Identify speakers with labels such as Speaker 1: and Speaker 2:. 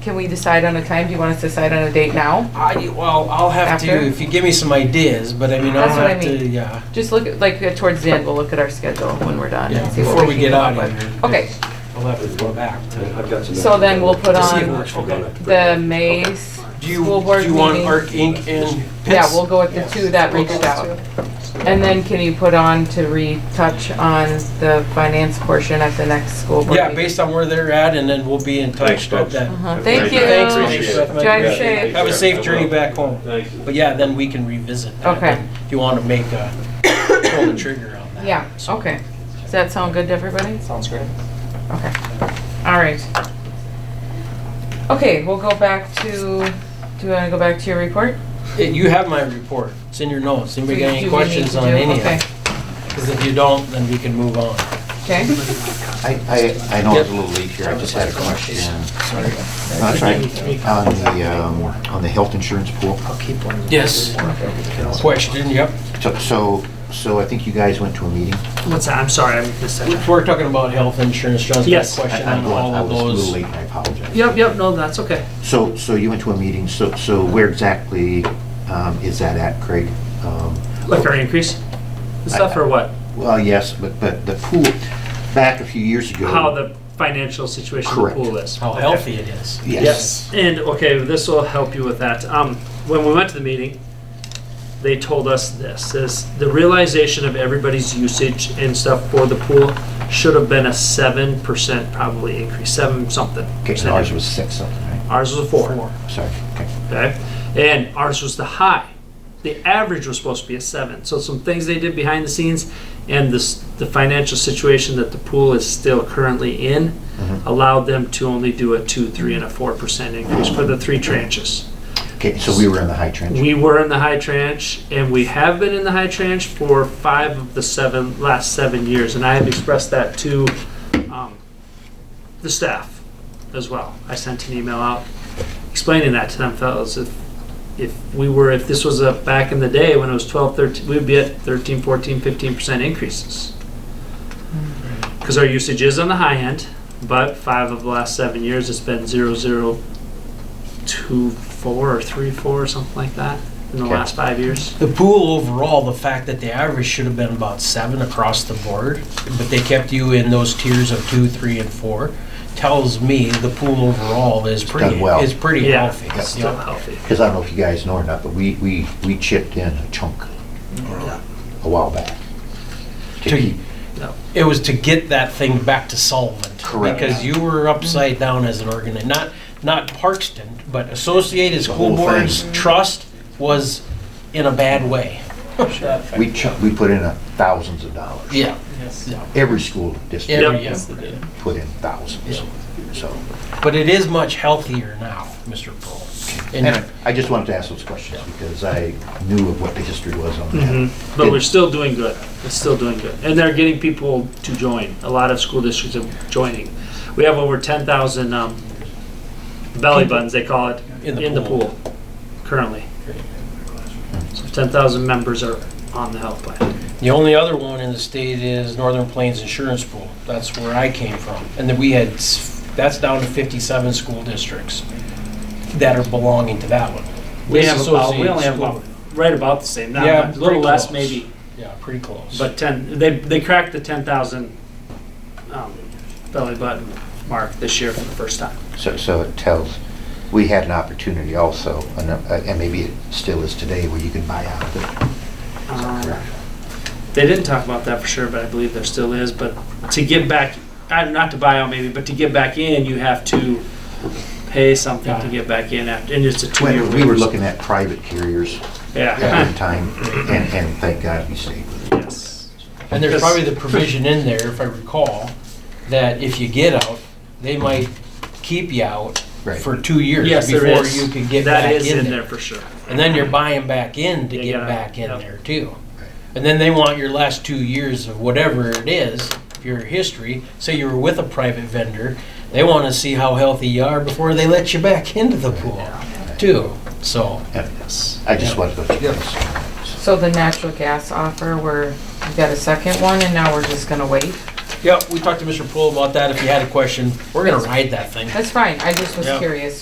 Speaker 1: Can we decide on a time? Do you want us to decide on a date now?
Speaker 2: I, well, I'll have to,
Speaker 1: After?
Speaker 2: if you give me some ideas, but I mean, I'll
Speaker 1: That's what I
Speaker 2: have to,
Speaker 1: mean.
Speaker 2: yeah.
Speaker 1: Just look, at like, uh, towards the end, we'll look at our schedule when we're done
Speaker 2: Yeah,
Speaker 1: and see what
Speaker 2: before we
Speaker 1: we can
Speaker 2: get
Speaker 1: come
Speaker 2: out
Speaker 1: up
Speaker 2: of
Speaker 1: with.
Speaker 2: here.
Speaker 1: Okay,
Speaker 2: I'll have to go back
Speaker 3: I've
Speaker 2: to,
Speaker 3: got some.
Speaker 1: So then we'll put
Speaker 2: to see if it
Speaker 1: on
Speaker 2: works for them.
Speaker 1: the May s-
Speaker 2: Do you,
Speaker 1: school board
Speaker 2: do you want
Speaker 1: meeting.
Speaker 2: Arc Inc. and Pitts?
Speaker 1: Yeah, we'll go with the two that reached out. And then can you put on to retouch on the finance portion at the next school board
Speaker 2: Yeah,
Speaker 1: meeting?
Speaker 2: based on where they're at, and then we'll be in touch
Speaker 3: Thanks,
Speaker 2: about
Speaker 3: folks.
Speaker 2: that.
Speaker 1: Uh-huh. Thank you.
Speaker 2: Thanks,
Speaker 1: Drive
Speaker 2: Mr.
Speaker 3: Appreciate it.
Speaker 2: Smith.
Speaker 3: Yeah,
Speaker 1: safe.
Speaker 2: Have a safe journey back home.
Speaker 3: Thanks.
Speaker 2: But yeah, then we can revisit that.
Speaker 1: Okay.
Speaker 2: If you want to make a, pull the trigger on that.
Speaker 1: Yeah, okay. Does that sound good to everybody? Sounds great. Okay, all right. Okay, we'll go back to, do you want to go back to your report?
Speaker 2: Yeah, You have my report. It's in your notes. Anybody got
Speaker 1: Do we
Speaker 2: any
Speaker 1: need
Speaker 2: questions
Speaker 1: to
Speaker 2: on
Speaker 1: do-
Speaker 2: any of
Speaker 1: okay,
Speaker 2: it? Because if you don't, then we can move on.
Speaker 1: Okay,
Speaker 4: I, I, I know it's a little late here, I just had a question. No, That's right, on the, um, on the health insurance pool.
Speaker 2: Yes. Question, yep.
Speaker 4: So- So, so I think you guys went to a meeting.
Speaker 5: What's that? I'm sorry, I missed that.
Speaker 2: We're talking about health insurance. John's got a
Speaker 5: Yes.
Speaker 4: I-
Speaker 2: question
Speaker 4: I'm
Speaker 2: on
Speaker 4: going-
Speaker 2: all
Speaker 4: I
Speaker 2: of
Speaker 4: was a little
Speaker 2: those.
Speaker 4: late, and I apologize.
Speaker 5: Yep, yep, no, that's okay.
Speaker 4: So, so you went to a meeting, so, so where exactly um, is that at, Craig? Um,
Speaker 5: Like our increase? The stuff or what?
Speaker 4: Well, yes, but, but the pool, back a few years ago.
Speaker 5: How the financial situation of the
Speaker 4: Uh, Correct.
Speaker 5: pool is?
Speaker 2: How
Speaker 5: Okay.
Speaker 2: healthy it is.
Speaker 4: Yes.
Speaker 5: Yes, and okay, this will help you with that. Um, when we went to the meeting, they told us this, is the realization of everybody's usage and stuff for the pool should have been a seven percent probably increase, seven something.
Speaker 4: Okay, so
Speaker 5: percent.
Speaker 4: ours was six something, right?
Speaker 5: Ours was a four,
Speaker 4: Sorry, okay.
Speaker 5: okay? And ours was the high. The average was supposed to be a seven, so some things they did behind the scenes and this, the financial situation that the pool is still currently in
Speaker 4: Mhm.
Speaker 5: allowed them to only do a two, three, and a four percent increase for the three tranches.
Speaker 4: Okay, so we were in the high trench.
Speaker 5: We were in the high tranche, and we have been in the high tranche for five of the seven, last seven years, and I have expressed that to um, the staff as well. I sent an email out explaining that to them fellas, if, if we were, if this was a, back in the day when it was 12, 13, we'd be at 13, 14, 15% increases. Because our usage is on the high end, but five of the last seven years, it's been 002, 4, or 3, 4, or something like that in the
Speaker 4: Okay.
Speaker 5: last five years.
Speaker 2: The pool overall, the fact that the average should have been about seven across the board, but they kept you in those tiers of two, three, and four, tells me the pool overall is pretty,
Speaker 4: Done well.
Speaker 2: is pretty
Speaker 5: Yeah,
Speaker 2: healthy.
Speaker 5: it's still
Speaker 2: Yeah.
Speaker 5: healthy.
Speaker 4: Because I don't know if you guys know or not, but we, we, we chipped in a chunk a while back. To
Speaker 2: To-
Speaker 4: keep,
Speaker 5: No.
Speaker 2: It was to get that thing back to solvent.
Speaker 4: Correct.
Speaker 2: Because you were upside down as an organ, and not, not Parkston, but Associated School
Speaker 4: whole thing.
Speaker 2: Boards Trust was in a bad way.
Speaker 4: we chuck, we put in a thousands of dollars.
Speaker 2: Yeah.
Speaker 4: Every school
Speaker 2: Every
Speaker 4: district
Speaker 2: year.
Speaker 4: put in thousands, so.
Speaker 2: But it is much healthier now, Mr. Pearl.
Speaker 4: Anyway, I just wanted to ask those questions because I knew of what the history was on
Speaker 5: Mhm.
Speaker 4: that.
Speaker 5: But we're still doing good. It's still doing good. And they're getting people to join. A lot of school districts are joining. We have over 10,000 um, belly buttons, they call it,
Speaker 2: In the
Speaker 5: in the
Speaker 2: pool.
Speaker 5: pool currently. So 10,000 members are on the health plan.
Speaker 2: The only other one in the state is Northern Plains Insurance Pool. That's where I came from. And then we had, s- that's down to 57 school districts that are belonging to that one.
Speaker 5: We
Speaker 2: This
Speaker 5: have about, we
Speaker 2: associated
Speaker 5: only have
Speaker 2: school-
Speaker 5: about, right about the same, not
Speaker 2: Yeah,
Speaker 5: a little
Speaker 2: pretty
Speaker 5: less
Speaker 2: close.
Speaker 5: maybe,
Speaker 2: Yeah, pretty close.
Speaker 5: but 10, they, they cracked the 10,000 um, belly button mark this year for the first time.
Speaker 4: So, so it tells, we had an opportunity also, and, uh, and maybe it still is today, where you can buy out of it.
Speaker 5: Um, They didn't talk about that for sure, but I believe there still is, but to get back, uh, not to buy out maybe, but to get back in, you have to pay something to get back in after, and it's a two-year.
Speaker 4: When we were
Speaker 5: wait.
Speaker 4: looking at private carriers at
Speaker 5: Yeah,
Speaker 4: one time, and, and thank God we stayed with it.
Speaker 5: yes.
Speaker 2: And there's probably the provision in there, if I recall, that if you get out, they might keep you out
Speaker 4: Right.
Speaker 2: for two years
Speaker 5: Yes, there
Speaker 2: before
Speaker 5: is.
Speaker 2: you could get
Speaker 5: That
Speaker 2: back
Speaker 5: is
Speaker 2: in
Speaker 5: there
Speaker 2: there.
Speaker 5: for sure.
Speaker 2: And then you're buying back in to
Speaker 5: You
Speaker 2: get
Speaker 5: gotta-
Speaker 2: back in
Speaker 5: yep.
Speaker 2: there too.
Speaker 4: Right.
Speaker 2: And then they want your last two years of whatever it is, your history. Say you were with a private vendor, they want to see how healthy you are before they let you back into the pool too. So,
Speaker 4: Yeah, I just wanted to. go
Speaker 1: so the natural gas offer, we're, we got a second one and now we're just gonna wait?
Speaker 2: yeah, we talked to Mr. Poole about that. If you had a question, we're gonna ride that thing.
Speaker 1: That's fine, I just was
Speaker 2: Yeah.
Speaker 1: curious